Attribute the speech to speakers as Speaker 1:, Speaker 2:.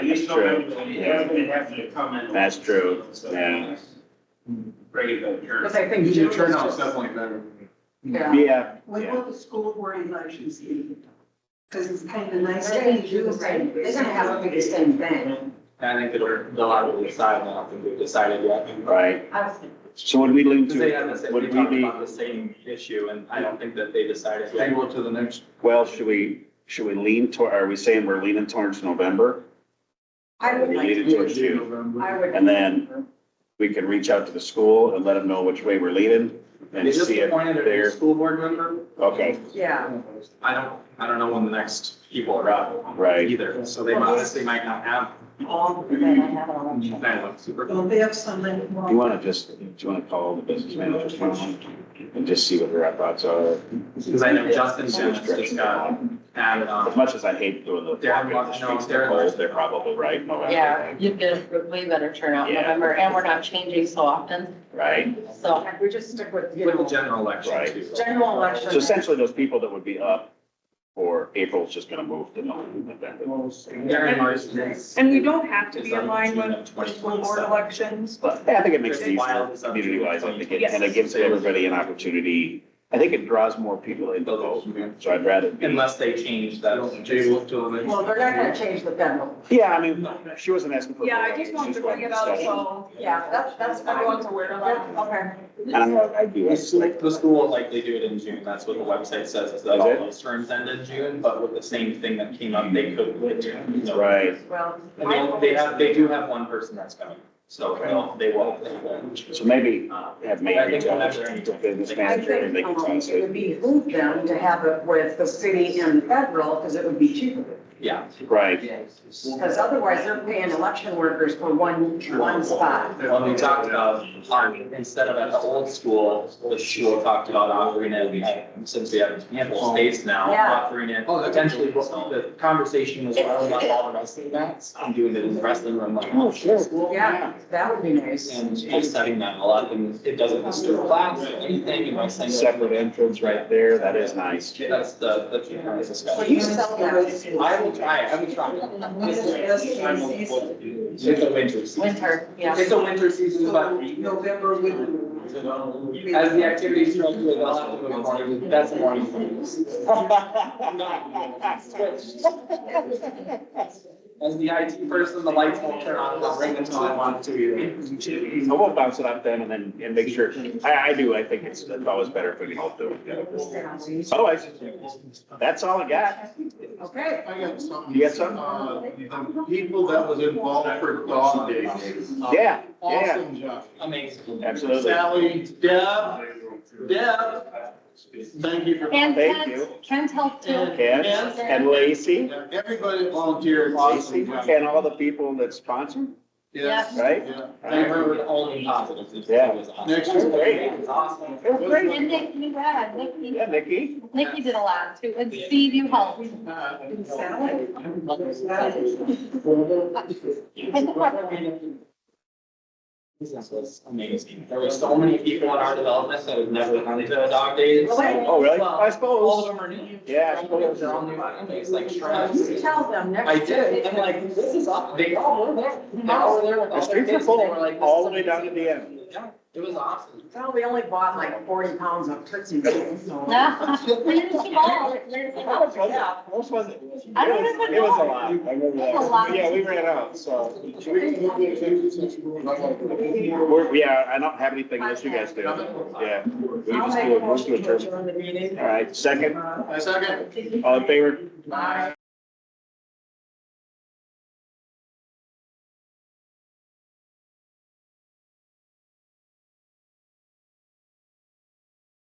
Speaker 1: just don't
Speaker 2: True.
Speaker 1: have,
Speaker 2: Yeah.
Speaker 1: everybody has to comment. on
Speaker 2: That's
Speaker 1: it,
Speaker 2: true.
Speaker 1: so
Speaker 2: Yeah.
Speaker 1: Regular
Speaker 3: Because
Speaker 1: terms.
Speaker 3: I think.
Speaker 4: Usually
Speaker 3: June
Speaker 4: turnout's
Speaker 3: is just-
Speaker 4: definitely better.
Speaker 3: Yeah.
Speaker 2: Yeah,
Speaker 5: When
Speaker 2: Yeah.
Speaker 5: will the school board elections be? Because it's kind of nice.
Speaker 3: They're gonna do the same, they're gonna have them do the same thing.
Speaker 6: I think that we're, they'll have to decide, I don't think they've decided yet.
Speaker 2: right.
Speaker 3: I was-
Speaker 2: So would we lean
Speaker 6: Because they had the
Speaker 2: to,
Speaker 6: same, we
Speaker 2: would we
Speaker 6: talked
Speaker 2: be,
Speaker 6: about the same issue, and I don't think that they decided. yet.
Speaker 4: Table it to the next,
Speaker 2: well, should we, should we lean toward, are we saying we're leaning towards November?
Speaker 3: I would
Speaker 2: We
Speaker 3: like
Speaker 2: lean
Speaker 3: to
Speaker 2: it towards
Speaker 3: do,
Speaker 2: you.
Speaker 3: I
Speaker 4: November.
Speaker 3: would.
Speaker 2: And then We can reach out to the school and let them know which way we're leaning
Speaker 6: They
Speaker 2: and
Speaker 6: just
Speaker 2: see if
Speaker 6: appointed a new
Speaker 2: they're,
Speaker 6: school board member.
Speaker 2: okay,
Speaker 3: Yeah,
Speaker 6: I don't, I don't know when the next people are up.
Speaker 2: Right.
Speaker 6: Either, so they honestly might not have
Speaker 5: All,
Speaker 3: then I have an election.
Speaker 6: that one super.
Speaker 5: will they have something?
Speaker 2: you want to just, do you want to call the business managers one and just see what their thoughts are?
Speaker 6: Because I know Justin
Speaker 2: see which
Speaker 6: Simmons just
Speaker 2: direction they're
Speaker 6: got
Speaker 2: going.
Speaker 6: added
Speaker 2: As
Speaker 6: on.
Speaker 2: much as I hate doing the walking
Speaker 6: Darren
Speaker 2: the
Speaker 6: Martin- no,
Speaker 2: streets, they're
Speaker 6: Darren
Speaker 2: cold,
Speaker 6: Martin.
Speaker 2: they're probably right, November.
Speaker 7: Yeah, you get a way better turnout in
Speaker 2: Yeah.
Speaker 7: November, and we're not changing so often,
Speaker 2: Right?
Speaker 7: so.
Speaker 3: We just stick with, you
Speaker 6: With the
Speaker 3: know,
Speaker 6: general election
Speaker 2: Right.
Speaker 6: too.
Speaker 3: general election.
Speaker 2: So essentially, those people that would be up for April is just gonna move to November.
Speaker 6: Darren Martin is-
Speaker 8: And we don't have to
Speaker 6: is
Speaker 8: be
Speaker 6: on
Speaker 8: in line
Speaker 6: June
Speaker 8: with
Speaker 6: of 2027.
Speaker 8: school board elections,
Speaker 2: But I think it makes it
Speaker 6: There's wild
Speaker 2: easier,
Speaker 6: assumptions.
Speaker 2: community wise, I think, it-
Speaker 8: Yes.
Speaker 2: and it gives everybody an opportunity. I think it draws more people into vote, so I'd rather be.
Speaker 6: Unless they change that.
Speaker 4: Table it till the next.
Speaker 3: Well, they're not gonna change the general.
Speaker 2: Yeah, I mean, she wasn't asking for.
Speaker 8: yeah, I
Speaker 2: votes,
Speaker 8: just wanted to
Speaker 2: she's
Speaker 8: bring it
Speaker 2: wanting
Speaker 8: out,
Speaker 2: discussion.
Speaker 8: so.
Speaker 3: Yeah, that's, that's everyone's aware of that. Okay.
Speaker 2: And I, I do.
Speaker 6: The school, the school will likely do it in June, that's what the website says, is that
Speaker 2: Is
Speaker 6: all
Speaker 2: it?
Speaker 6: those terms end in June, but with the same thing that came up, they could. wait till November.
Speaker 2: Right.
Speaker 3: Well.
Speaker 6: And they'll- they have, they do have one person that's coming, so they'll- they will. they will.
Speaker 2: So maybe have
Speaker 6: I
Speaker 2: maybe
Speaker 6: think we'll have to-
Speaker 2: the business
Speaker 3: I
Speaker 2: manager and they
Speaker 3: think
Speaker 2: can
Speaker 3: um,
Speaker 2: toss
Speaker 3: it
Speaker 2: it.
Speaker 3: would behoove them to have it with the city and federal, because it would be cheaper.
Speaker 6: Yeah,
Speaker 2: Right,
Speaker 3: Because otherwise, they're paying election workers for one, one spot.
Speaker 6: when we talked about, um, instead of at the old school, the school talked about offering it, uh, since we have ample space now,
Speaker 3: Yeah.
Speaker 6: offering it
Speaker 4: Oh, that's-
Speaker 6: potentially, the conversation was, well, about all the wrestling mats, I'm doing it in the wrestling room, like. Oh, sure.
Speaker 3: Yeah, that would be nice.
Speaker 6: And offsetting that a lot, and it doesn't disturb class or anything, you might say.
Speaker 2: separate entrance right there, that is nice.
Speaker 6: That's the, the key part of this
Speaker 3: So
Speaker 6: discussion.
Speaker 3: you sell that.
Speaker 6: I will try, it. I will try. It's a winter season.
Speaker 7: Winter, yeah.
Speaker 6: It's a winter season,
Speaker 5: So
Speaker 6: but
Speaker 5: November would.
Speaker 6: as the activities uh, start to, they'll have to move on, that's the morning. As the IT person, the lights won't turn on, I'll ring until I want to either.
Speaker 2: I will bounce it up then and then, and make sure, I, I do, I think it's, it's always better if we can all do it together. So I, that's all I got.
Speaker 3: Okay.
Speaker 4: I got something.
Speaker 2: You got something?
Speaker 4: Uh, the people that was involved for dog days. uh,
Speaker 2: Yeah, yeah,
Speaker 4: Awesome job.
Speaker 6: Amazing.
Speaker 2: absolutely.
Speaker 4: Sally, Deb, Deb, thank you for,
Speaker 7: And
Speaker 2: Thank
Speaker 7: Ken's,
Speaker 2: you.
Speaker 7: Ken's helped too.
Speaker 2: Ken and Lacy,
Speaker 4: everybody that volunteered, awesome job.
Speaker 2: and all the people that sponsored,
Speaker 4: Yes,
Speaker 2: right?
Speaker 4: yeah.
Speaker 6: I heard only positives. It
Speaker 2: Yeah.
Speaker 6: was awesome.
Speaker 4: Next is
Speaker 2: great.
Speaker 6: It's awesome.
Speaker 2: It was
Speaker 7: And
Speaker 2: great.
Speaker 7: Nick, you had, Nikki,
Speaker 2: Yeah, Nikki,
Speaker 7: Nikki did a lot too, and Steve, you helped.
Speaker 6: This was amazing. There were so many people in our development that had never gone to a dog day.
Speaker 2: oh, really? I
Speaker 6: All of
Speaker 2: suppose,
Speaker 6: them are new.
Speaker 2: yeah, I
Speaker 6: All of
Speaker 2: suppose.
Speaker 6: them are all new. I don't know, it's like
Speaker 3: You
Speaker 6: shrubs.
Speaker 3: tell them next.
Speaker 6: I did. I'm like, this is awesome. They all were there. They all were there with
Speaker 2: The
Speaker 6: all their
Speaker 2: streets are
Speaker 6: kids, and they
Speaker 2: full,
Speaker 6: were like, this
Speaker 2: all
Speaker 6: is
Speaker 2: the way down to
Speaker 6: amazing.
Speaker 2: the end.
Speaker 6: Yeah, It was awesome.
Speaker 3: Well, we only bought like forty pounds of Tootsie Rolls, so.
Speaker 2: How much was it? How much was it?
Speaker 7: I don't even
Speaker 2: It was a
Speaker 7: know.
Speaker 2: lot, I remember
Speaker 7: It was a lot.
Speaker 2: that. Yeah, we ran out, so.
Speaker 4: Should we move the executive session? We're not gonna-
Speaker 2: We're, yeah, I don't have anything unless you guys do. Yeah. We
Speaker 3: I'll
Speaker 2: just
Speaker 3: make
Speaker 2: do
Speaker 3: a
Speaker 2: it, we'll do
Speaker 3: motion
Speaker 2: it
Speaker 3: to
Speaker 2: first.
Speaker 3: adjourn the meeting.
Speaker 2: All right, second,
Speaker 4: A second?
Speaker 2: all in favor?
Speaker 4: Bye.